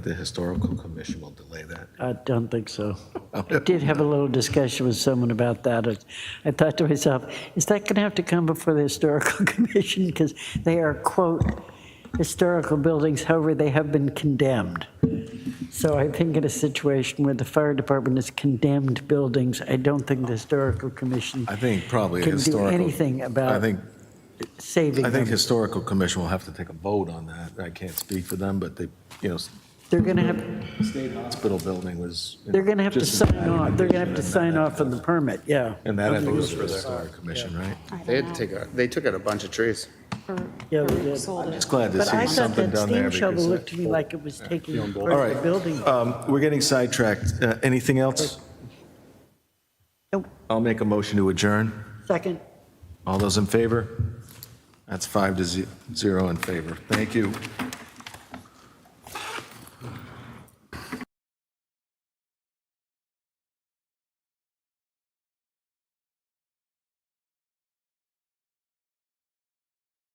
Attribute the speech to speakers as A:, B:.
A: The historical commission will delay that.
B: I don't think so. I did have a little discussion with someone about that. I- I thought to myself, is that going to have to come before the historical commission? Because they are, quote, historical buildings, however, they have been condemned. So I think in a situation where the fire department is condemned buildings, I don't think the historical commission
A: I think probably
B: can do
A: historical.
B: anything
A: I
B: about
A: think,
B: saving
A: I think
B: them.
A: historical commission will have to take a vote on that. I can't speak for them, but they, you know,
B: They're going to have,
A: state hospital building was. you know,
B: they're going to have to
A: just as
B: sign
A: bad.
B: off, they're going to have to sign off on the permit, yeah.
A: And that I think was for the historic commission, right?
C: They had to take, out- they took out a bunch of trees.
B: Yeah, they did.
A: It's glad to
B: But I
A: see
B: thought
A: something
B: that
A: done there.
B: steam shovel
A: because
B: looked to me like it was taking
A: All
B: part of the
A: right,
B: building.
A: um, we're getting sidetracked. Uh, Anything else?
B: Nope.
A: I'll make a motion to adjourn.
B: Second.
A: All those in favor? That's five to ze- zero in favor. Thank you.